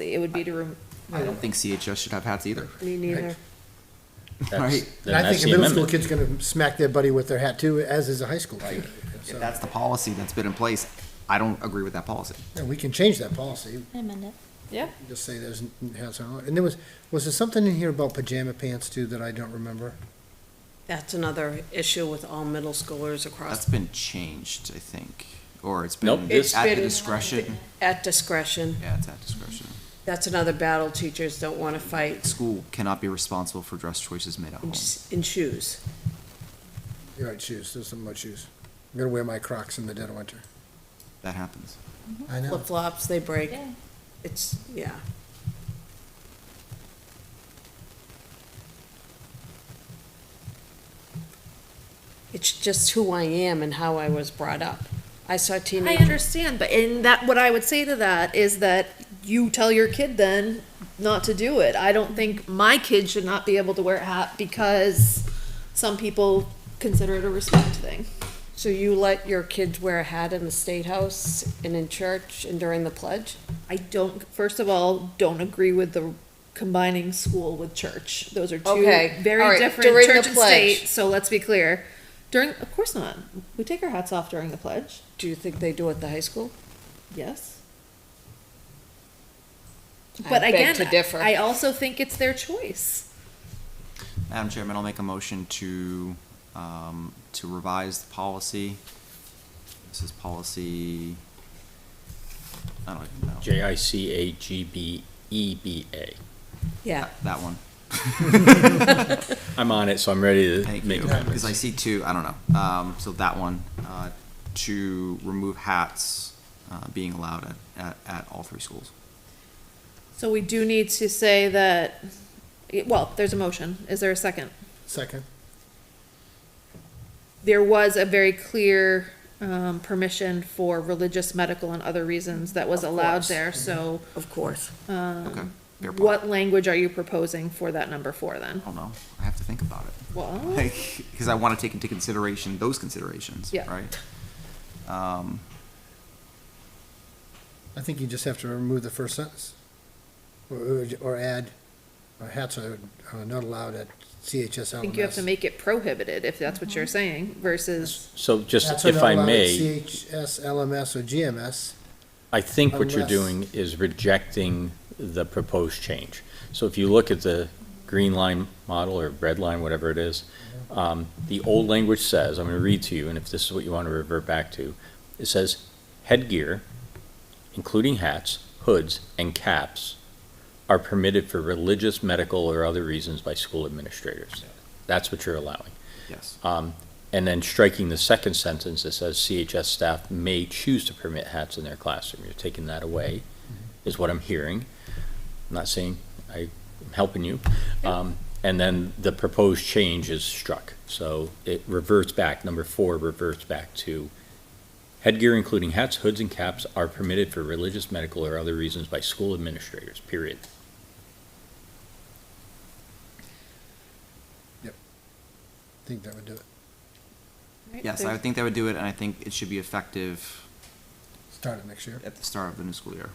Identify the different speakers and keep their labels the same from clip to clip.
Speaker 1: It would be to, rem-
Speaker 2: I don't think CHS should have hats either.
Speaker 3: Me neither.
Speaker 2: Right.
Speaker 4: And I think a middle school kid's gonna smack their buddy with their hat too, as is a high school kid.
Speaker 2: If
Speaker 4: So,
Speaker 2: that's the policy that's been in place, I don't agree with that policy.
Speaker 4: And we can change that policy,
Speaker 5: I amend it.
Speaker 1: yeah,
Speaker 4: just say there's, has, and there was, was there something in here about pajama pants too that I don't remember?
Speaker 3: That's another issue with all middle schoolers
Speaker 2: That's
Speaker 3: across,
Speaker 2: been changed, I think, or it's
Speaker 6: Nope.
Speaker 2: been
Speaker 3: It's
Speaker 2: at the
Speaker 3: been-
Speaker 2: discretion.
Speaker 3: at discretion.
Speaker 2: Yeah, it's at discretion.
Speaker 3: That's another battle teachers don't want to fight
Speaker 2: School cannot be responsible for dress choices made at
Speaker 3: in
Speaker 2: home.
Speaker 3: s- in shoes.
Speaker 4: You're right, shoes, there's something about shoes. I'm gonna wear my Crocs in the dead of winter.
Speaker 2: That happens.
Speaker 4: I know.
Speaker 3: Flip-flops, they break.
Speaker 5: Yeah.
Speaker 3: It's, yeah. It's just who I am and how I was brought up. I saw
Speaker 1: I
Speaker 3: teenagers.
Speaker 1: understand, but in that, what I would say to that is that you tell your kid then not to do it. I don't think my kid should not be able to wear a hat because some people consider it a respect thing.
Speaker 3: So you let your kids wear a hat in the state house and in church and during the pledge?
Speaker 1: I don't, first of all, don't agree with the combining school with church. Those are two
Speaker 3: Okay, all
Speaker 1: very
Speaker 3: right,
Speaker 1: different
Speaker 3: during the
Speaker 1: church and
Speaker 3: pledge.
Speaker 1: state, so let's be clear. During, of course not. We take our hats off during the pledge.
Speaker 3: Do you think they do at the high school?
Speaker 1: Yes.
Speaker 3: I
Speaker 1: But
Speaker 3: beg
Speaker 1: again,
Speaker 3: to differ.
Speaker 1: I also think it's their choice.
Speaker 2: Madam Chairman, I'll make a motion to, um, to revise the policy. This is policy, I don't even know.
Speaker 6: J I C A G B E B A.
Speaker 3: Yeah.
Speaker 2: That one.
Speaker 6: I'm on it, so I'm ready to
Speaker 2: Thank
Speaker 6: make
Speaker 2: you.
Speaker 6: amendments.
Speaker 2: Because I see two, I don't know. Um, so that one, uh, to remove hats, uh, being allowed at, at, at all three schools.
Speaker 1: So we do need to say that, well, there's a motion. Is there a second?
Speaker 4: Second,
Speaker 1: there was a very clear um, permission for religious, medical, and other reasons that was
Speaker 3: Of
Speaker 1: allowed
Speaker 3: course.
Speaker 1: there, so
Speaker 3: Of course.
Speaker 2: Okay, Mm-hmm. fair point.
Speaker 1: Um,
Speaker 2: Oh.
Speaker 1: what language are you proposing for that number four then?
Speaker 2: I don't know. I have to think about it.
Speaker 1: Well,
Speaker 2: Like, because I want to take into consideration those considerations,
Speaker 1: Yeah.
Speaker 2: right? Um,
Speaker 4: I think you just have to remove the first sentence. Or, or add, uh, hats are are not allowed at CHS
Speaker 1: I think you have to
Speaker 4: LMS.
Speaker 1: make it prohibited, if that's what you're
Speaker 2: Mm-hmm.
Speaker 1: saying, versus,
Speaker 6: So just,
Speaker 4: Hats are
Speaker 6: if
Speaker 4: not
Speaker 6: I
Speaker 4: allowed at
Speaker 6: may,
Speaker 4: CHS, LMS, or GMS.
Speaker 6: I think what you're
Speaker 4: Unless-
Speaker 6: doing is rejecting the proposed change. So if you look at the green line model or red line, whatever it is, um, the old language says, I'm gonna read to you, and if this is what you want to revert back to, it says headgear, including hats, hoods, and caps, are permitted for religious, medical, or other reasons by school administrators. That's what you're allowing.
Speaker 2: yes.
Speaker 6: Um, And then striking the second sentence that says CHS staff may choose to permit hats in their classroom. You're taking that away, is what I'm hearing. I'm not saying I'm helping you. Um, And then the proposed change is struck. So it reverts back, number four reverts back to headgear including hats, hoods, and caps are permitted for religious, medical, or other reasons by school administrators, period.
Speaker 4: I think that would do it.
Speaker 2: Yes, I would think that would do it, and I think it should be effective
Speaker 4: Start it next year.
Speaker 2: at the start of the new school year.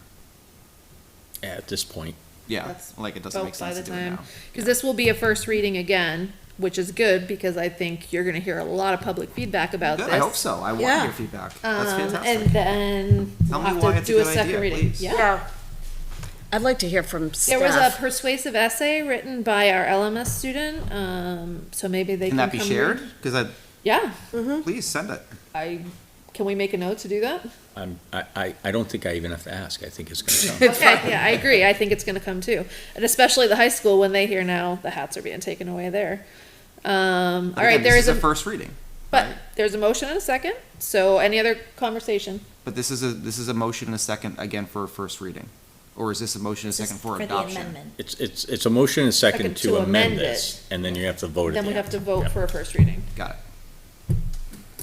Speaker 6: At this point,
Speaker 2: Yeah,
Speaker 1: That's
Speaker 2: like it doesn't make
Speaker 1: both by
Speaker 2: sense
Speaker 1: the
Speaker 2: to do it
Speaker 1: time.
Speaker 2: now.
Speaker 1: Because this will be a first reading again, which is good, because I think you're gonna hear a lot of public feedback about
Speaker 2: Good,
Speaker 1: this.
Speaker 2: I hope so. I want to
Speaker 3: Yeah.
Speaker 2: hear feedback. That's
Speaker 1: Um, and
Speaker 2: fantastic.
Speaker 1: then
Speaker 2: Tell
Speaker 1: we'll
Speaker 2: me why
Speaker 1: have to
Speaker 2: it's a
Speaker 1: do a
Speaker 2: good idea,
Speaker 1: second reading,
Speaker 2: please.
Speaker 1: yeah.
Speaker 3: Yeah. I'd like to hear from
Speaker 1: There was a
Speaker 3: staff.
Speaker 1: persuasive essay written by our LMS student, um, so maybe they
Speaker 2: Can
Speaker 1: can
Speaker 2: that be
Speaker 1: come
Speaker 2: shared?
Speaker 1: read. Hmm?
Speaker 2: Because
Speaker 1: Yeah,
Speaker 2: I, please send it.
Speaker 1: I, can we make a note to do that?
Speaker 6: I'm, I, I, I don't think I even have to ask. I think it's gonna come.
Speaker 1: Okay, yeah, I agree, I think it's gonna come too, and especially the high school, when they hear now the hats are being taken away there. Um,
Speaker 2: But
Speaker 1: all right,
Speaker 2: again,
Speaker 1: there
Speaker 2: this
Speaker 1: is
Speaker 2: the
Speaker 1: a,
Speaker 2: First reading,
Speaker 1: but there's a motion and a second, so any other conversation?
Speaker 2: but this is a, this is a motion and a second again for a first reading. Or is this a motion and a second for
Speaker 5: For the
Speaker 2: adoption?
Speaker 5: amendment.
Speaker 6: It's, it's, it's a motion and a second
Speaker 1: Second
Speaker 6: to
Speaker 1: to
Speaker 6: amend
Speaker 1: amend
Speaker 6: this, and then you have to vote at the
Speaker 1: Then
Speaker 6: end.
Speaker 1: we have to vote
Speaker 6: Yep.
Speaker 1: for a first reading.
Speaker 2: Got it.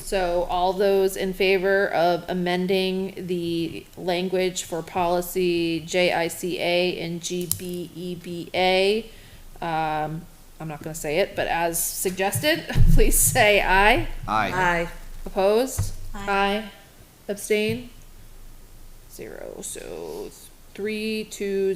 Speaker 1: So all those in favor of amending the language for policy JICA and GBEBA, um, I'm not gonna say it, but as suggested, please say aye.
Speaker 2: Aye.
Speaker 3: Aye.
Speaker 1: Opposed?
Speaker 5: Aye.
Speaker 1: Abstain? Zero, so three, two,